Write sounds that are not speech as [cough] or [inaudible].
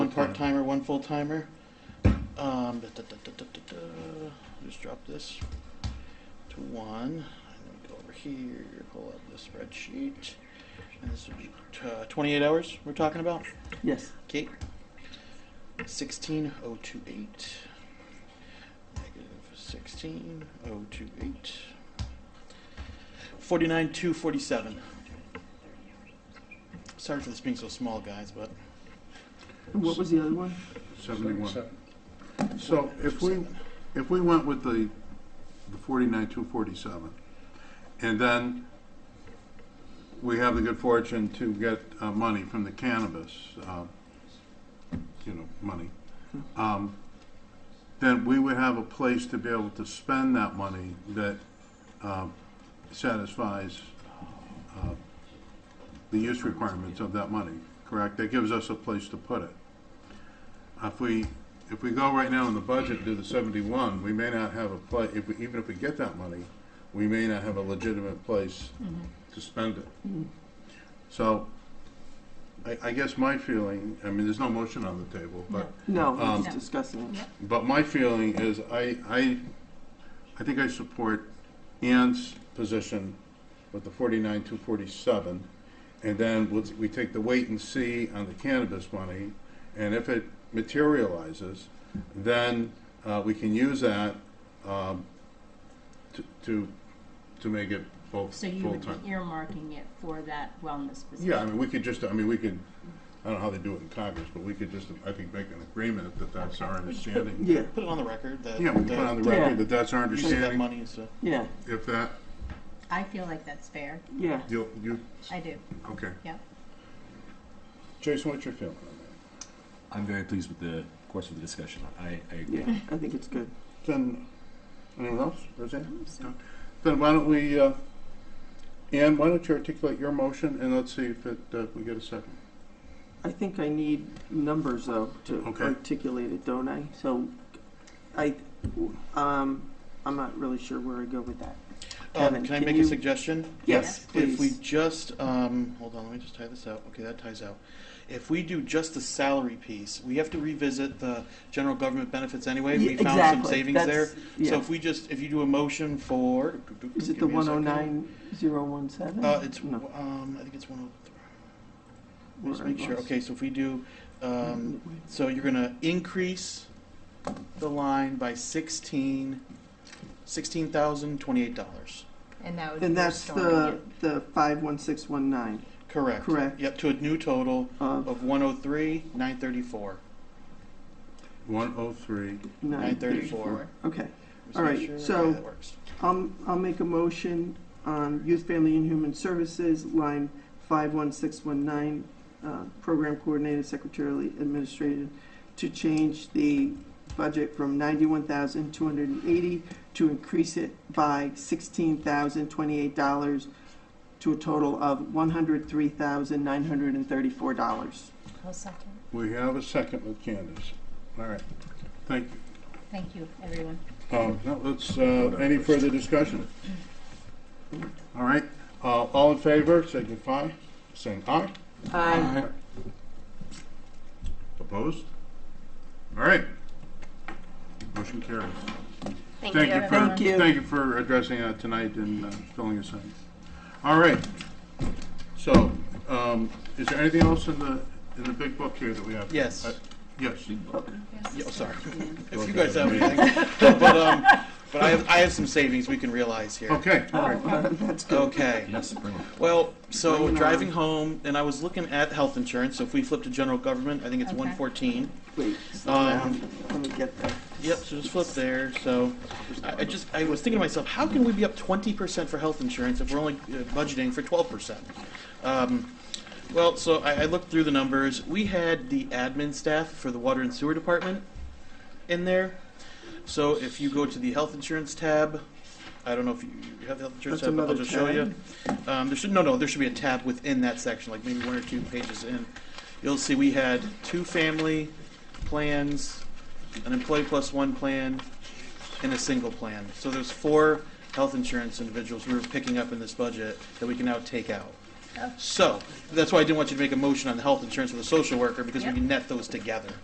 timer, one full timer. Um, da, da, da, da, da, da, da. Just drop this to one. And then go over here, pull up the spreadsheet. And this would be t- uh, 28 hours we're talking about. Yes. Okay. 16028. Negative 16028. 49247. Sorry for this being so small, guys, but And what was the other one? 71. So if we, if we went with the the 49, 247, and then we have the good fortune to get uh, money from the cannabis, uh, you know, money, um, then we would have a place to be able to spend that money that um, satisfies uh, the use requirements of that money, correct? That gives us a place to put it. If we, if we go right now in the budget to the seventy-one, we may not have a pla, if, we- even if we get that money, we may not have a legitimate place to spend it. So, I, I guess my feeling, I mean, there's no motion on the table, but, No, we're Um, just discussing it. but my feeling is I, I, I think I support Ann's position with the forty-nine, two forty-seven. And then we'll, we take the wait and see on the cannabis money, and if it materializes, then, uh, we can use that, um, to, to, to make it both So you would be full-time. earmarking it for that wellness position? Yeah, I mean, we could just, I mean, we could, I don't know how they do it in Congress, but we could just, I think, make an agreement that that's our understanding. Yeah, put it on the record that Yeah, we put on the Yeah. record that that's our you save that understanding. money is to yeah, If that, I feel like that's fair. yeah. you, you, I do, okay. yeah. Jason, what's your feeling on that? I'm very pleased with the course of the discussion. I, I agree. Yeah, I think it's good. Then, anyone else, Roseanne? No. Then why don't we, uh, Ann, why don't you articulate your motion, and let's see if it, uh, we get a second. I think I need numbers though to Okay. articulate it, don't I? So, I, um, I'm not really sure where I go with that. Kevin, um, can I can make you- a suggestion? Yes, If we please. just, um, hold on, let me just tie this out. Okay, that ties out. If we do just the salary piece, we have to revisit the general government benefits anyway. Yeah, We found some exactly. savings there. That's- So Yeah. if we just, if you do a motion for. Is it the give me a one oh second. nine zero one seven? Uh, it's, No. um, I think it's one oh three. Where Mm-hmm. Just I make sure. lost. Okay, so if we do, um, So you're gonna increase the line by sixteen, sixteen thousand twenty-eight dollars. And that would be And that's restoring the, the it. five one six one nine Correct. Correct. Yep, to a new total of of one oh three, nine thirty-four. One oh three, nine thirty. 934. Okay. All right, so- That works. I'll, I'll make a motion on Youth, Family, and Human Services, line 51619, uh, Program Coordinator, Secretarially Administrated, to change the budget from 91,280 to increase it by $16,028 to a total of $103,934. I'll second. we have a second with Candace. All right, thank you. Thank you, everyone. Um, no, let's, uh, any further discussion? All right, uh, all in favor, signify, saying aye. Aye. Opposed? All right. Motion carries. Thank for everyone. you. Thank you for addressing that tonight and uh, filling us in. All right. So, um, is there anything else in the, in the big book here that we have? Yes. Uh, Yes. Yeah, oh, sorry. [laughs] If you guys have anything. [laughs] No, But, um, but I have, I have some savings we can realize here. Okay, all right. That's good. Okay. Yes, bring it. Well, Bring so it on. driving home, and I was looking at health insurance, so if we flip to general government, I think it's Okay. one fourteen. Wait, slow Um, down. Let me get there. Yep, so just flip there, so, I, I just, I was thinking to myself, how can we be up twenty percent for health insurance if we're only uh, budgeting for twelve percent? Um, well, so I, I looked through the numbers, we had the admin staff for the water and sewer department in there. So if you go to the health insurance tab, I don't know if you you have the health insurance That's tab, but I'll another just show you. tab? Um, there should, no, no, there should be a tab within that section, like maybe one or two pages in. You'll see we had two family plans, an employee plus one plan, and a single plan. So there's four health insurance individuals we were picking up in this budget that we can now take out. Oh. So, that's why I didn't want you to make a motion on the health insurance with a social worker, because we Yep. can net those together.